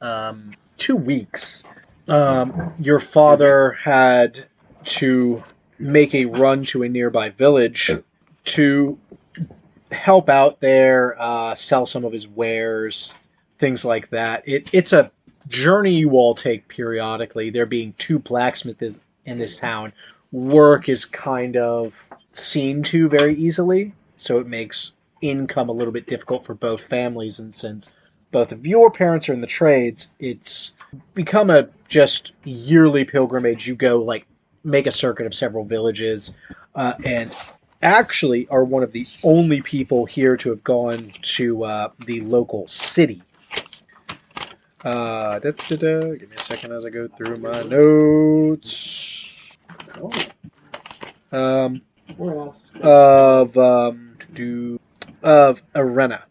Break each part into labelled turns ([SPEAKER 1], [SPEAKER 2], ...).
[SPEAKER 1] um, two weeks, um, your father had to make a run to a nearby village to help out there, uh, sell some of his wares, things like that. It, it's a journey you all take periodically. There being two blacksmiths in this town, work is kind of seen to very easily, so it makes income a little bit difficult for both families. And since both of your parents are in the trades, it's become a just yearly pilgrimage. You go like make a circuit of several villages, uh, and actually are one of the only people here to have gone to uh, the local city. Uh, da, da, da. Give me a second as I go through my notes. Oh. Um, of um, do, of Arena.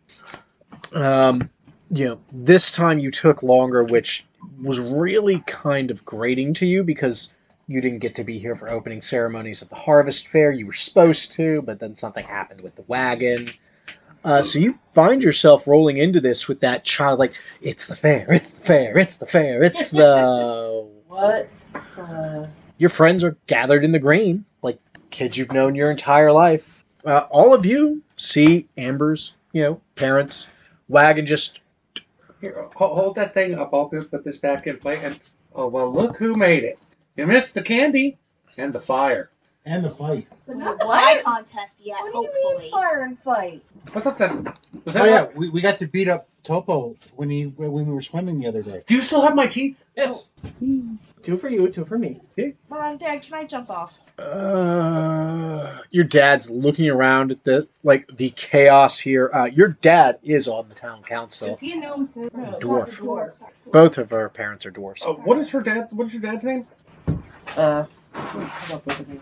[SPEAKER 1] Um, you know, this time you took longer, which was really kind of grating to you because you didn't get to be here for opening ceremonies at the harvest fair. You were supposed to, but then something happened with the wagon. Uh, so you find yourself rolling into this with that child, like it's the fair, it's the fair, it's the fair, it's the
[SPEAKER 2] What? Uh,
[SPEAKER 1] your friends are gathered in the green, like kids you've known your entire life. Uh, all of you see Amber's, you know, parents' wagon just
[SPEAKER 3] Here, ho- hold that thing up. I'll just put this back in play. And oh well, look who made it. You missed the candy and the fire.
[SPEAKER 4] And the fight.
[SPEAKER 5] But not the
[SPEAKER 2] What?
[SPEAKER 5] pie contest yet,
[SPEAKER 2] what do you
[SPEAKER 5] hopefully.
[SPEAKER 2] mean fire and fight?
[SPEAKER 3] What look that? Was that?
[SPEAKER 4] Oh yeah,
[SPEAKER 3] what-
[SPEAKER 4] we, we got to beat up Topo when he when we were swimming the other day.
[SPEAKER 3] Do you still have my teeth?
[SPEAKER 6] Yes. Two for you, two for me.
[SPEAKER 2] Mom, Dad, can I jump off?
[SPEAKER 1] Uh, your dad's looking around at the like the chaos here. Uh, your dad is on the town council.
[SPEAKER 5] Does he know him too? No,
[SPEAKER 1] Dwarf.
[SPEAKER 5] he's a dwarf.
[SPEAKER 1] Both of our parents are dwarfs.
[SPEAKER 3] Uh, what is her dad? What is your dad's name?
[SPEAKER 2] Uh, come up with a name.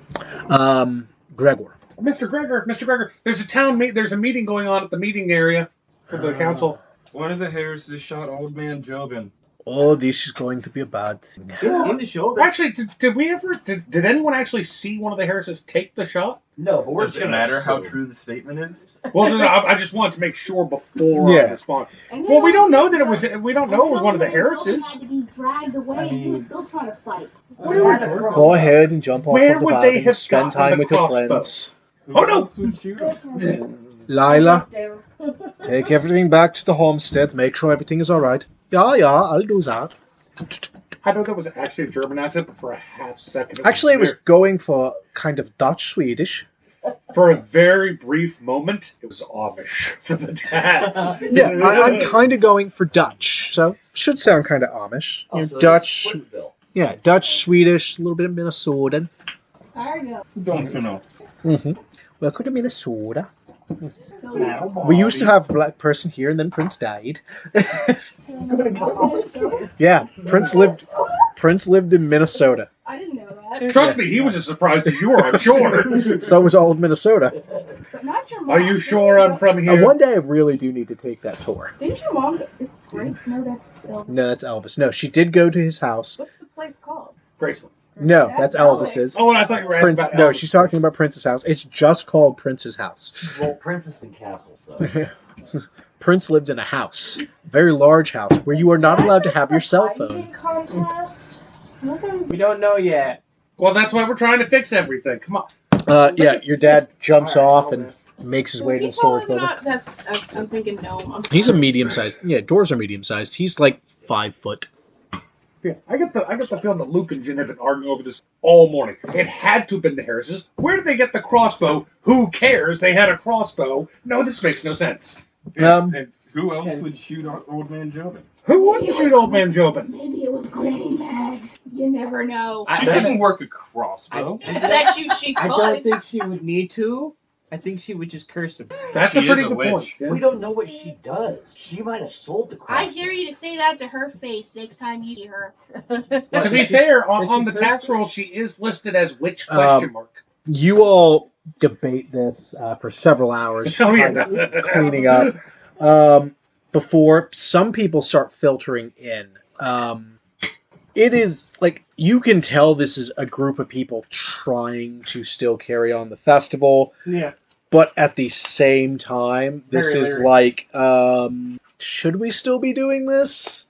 [SPEAKER 1] Um, Gregor.
[SPEAKER 3] Mr. Gregor. Mr. Gregor. There's a town. Me- there's a meeting going on at the meeting area for the
[SPEAKER 1] Ah.
[SPEAKER 3] council.
[SPEAKER 7] One of the Harrises shot old man Jobin.
[SPEAKER 1] Oh, this is going to be a bad thing.
[SPEAKER 6] In, in the
[SPEAKER 4] Uh,
[SPEAKER 6] shoulder.
[SPEAKER 3] Actually, did, did we ever? Did, did anyone actually see one of the Harrises take the shot?
[SPEAKER 6] No, but we're
[SPEAKER 7] Does
[SPEAKER 6] just
[SPEAKER 7] it
[SPEAKER 6] gonna
[SPEAKER 7] matter how
[SPEAKER 6] assume.
[SPEAKER 7] true the statement is?
[SPEAKER 3] Well, no, no, I, I just wanted to make sure before
[SPEAKER 1] Yeah.
[SPEAKER 3] I respond.
[SPEAKER 5] And
[SPEAKER 3] Well, we
[SPEAKER 5] then-
[SPEAKER 3] don't know that it was. We don't
[SPEAKER 5] and
[SPEAKER 3] know it
[SPEAKER 5] then
[SPEAKER 3] was one of the
[SPEAKER 5] when Golden
[SPEAKER 3] Harrises.
[SPEAKER 5] Had to be dragged away,
[SPEAKER 4] I
[SPEAKER 5] and he was
[SPEAKER 4] mean-
[SPEAKER 5] still trying to fight.
[SPEAKER 3] What are we-
[SPEAKER 1] Go ahead and jump off
[SPEAKER 3] Where
[SPEAKER 1] of the
[SPEAKER 3] would they
[SPEAKER 1] wagon.
[SPEAKER 3] have
[SPEAKER 1] spend
[SPEAKER 3] gotten
[SPEAKER 1] time
[SPEAKER 3] the
[SPEAKER 1] with your
[SPEAKER 3] crossbow?
[SPEAKER 1] friends.
[SPEAKER 7] Who
[SPEAKER 3] Oh, no!
[SPEAKER 7] else would shoot him?
[SPEAKER 1] Lila,
[SPEAKER 2] Down.
[SPEAKER 1] take everything back to the homestead. Make sure everything is all right. Yeah, yeah, I'll do that.
[SPEAKER 3] I know that was actually a German accent, but for a half second,
[SPEAKER 1] Actually, it was
[SPEAKER 3] very-
[SPEAKER 1] going for kind of Dutch Swedish.
[SPEAKER 3] for a very brief moment. It was Amish for the dad.
[SPEAKER 1] Yeah, I, I'm kind of going for Dutch, so should sound kind of Amish. You know,
[SPEAKER 6] Also,
[SPEAKER 1] Dutch,
[SPEAKER 6] Splitsville.
[SPEAKER 1] yeah, Dutch, Swedish, a little bit of Minnesotan.
[SPEAKER 5] Fargo.
[SPEAKER 7] Don't you know?
[SPEAKER 1] Mm-hmm. Welcome to Minnesota.
[SPEAKER 5] So now.
[SPEAKER 1] We used to have a black person here, and then Prince died. Yeah, Prince lived. Prince lived in Minnesota.
[SPEAKER 5] I didn't know that.
[SPEAKER 3] Trust me, he was as surprised as you were. I'm sure.
[SPEAKER 1] So was old Minnesota.
[SPEAKER 5] But not your mom.
[SPEAKER 3] Are you sure I'm from
[SPEAKER 1] Now,
[SPEAKER 3] here?
[SPEAKER 1] one day, I really do need to take that tour.
[SPEAKER 5] Didn't your mom? It's Grace. No, that's Elvis.
[SPEAKER 1] No, that's Elvis. No, she did go to his house.
[SPEAKER 5] What's the place called?
[SPEAKER 3] Graceland.
[SPEAKER 1] No, that's Elvis's.
[SPEAKER 3] Oh, and I thought you were asking
[SPEAKER 1] Prince.
[SPEAKER 3] about
[SPEAKER 1] No,
[SPEAKER 3] Elvis.
[SPEAKER 1] she's talking about Prince's house. It's just called Prince's house.
[SPEAKER 6] Well, Princess and Castle, so.
[SPEAKER 1] Prince lived in a house, very large house, where you are not allowed to have your cell phone.
[SPEAKER 2] Contest.
[SPEAKER 5] Well, there's-
[SPEAKER 6] We don't know yet.
[SPEAKER 3] Well, that's why we're trying to fix everything. Come on.
[SPEAKER 1] Uh, yeah, your dad jumps
[SPEAKER 3] All right,
[SPEAKER 1] off
[SPEAKER 3] hold
[SPEAKER 1] and makes his
[SPEAKER 5] so
[SPEAKER 1] way
[SPEAKER 5] is
[SPEAKER 1] to
[SPEAKER 5] he
[SPEAKER 1] the storage
[SPEAKER 5] taller than
[SPEAKER 1] building.
[SPEAKER 5] I- That's, that's, I'm thinking no. I'm
[SPEAKER 1] He's a
[SPEAKER 5] sorry.
[SPEAKER 1] medium sized. Yeah, doors are medium sized. He's like five foot.
[SPEAKER 3] Yeah, I get the I get the feeling that Luke and Jin have been arguing over this all morning. It had to have been the Harrises. Where did they get the crossbow? Who cares? They had a crossbow. No, this makes no sense.
[SPEAKER 7] And,
[SPEAKER 1] Um,
[SPEAKER 7] and who else would shoot o- old man Jobin?
[SPEAKER 3] Who wouldn't shoot old man Jobin?
[SPEAKER 5] Maybe it was Granny Mags. You never know.
[SPEAKER 6] I-
[SPEAKER 7] She
[SPEAKER 6] that's-
[SPEAKER 7] didn't work a
[SPEAKER 6] I,
[SPEAKER 7] crossbow.
[SPEAKER 6] I don't-
[SPEAKER 5] bet you she
[SPEAKER 6] I don't
[SPEAKER 5] could.
[SPEAKER 6] think she would need to. I think she would just curse him.
[SPEAKER 3] That's
[SPEAKER 7] She
[SPEAKER 3] a pretty
[SPEAKER 7] is a
[SPEAKER 3] good
[SPEAKER 7] witch.
[SPEAKER 3] point. Jin.
[SPEAKER 8] We don't know what she does. She might have sold the
[SPEAKER 5] I
[SPEAKER 8] cross.
[SPEAKER 5] dare you to say that to her face next time you see her.
[SPEAKER 3] to be
[SPEAKER 6] Did she-
[SPEAKER 3] fair, on,
[SPEAKER 6] did she
[SPEAKER 3] on the
[SPEAKER 6] curse
[SPEAKER 3] tax
[SPEAKER 6] her?
[SPEAKER 3] roll, she is listed as witch
[SPEAKER 1] Um,
[SPEAKER 3] question mark.
[SPEAKER 1] you all debate this uh, for several hours,
[SPEAKER 3] Oh yeah,
[SPEAKER 1] uh, cleaning up um, before some people start filtering in. Um, it is like you can tell this is a group of people trying to still carry on the festival.
[SPEAKER 6] Yeah.
[SPEAKER 1] but at the same time, this
[SPEAKER 6] Very
[SPEAKER 1] is
[SPEAKER 6] leery.
[SPEAKER 1] like, um, should we still be doing this?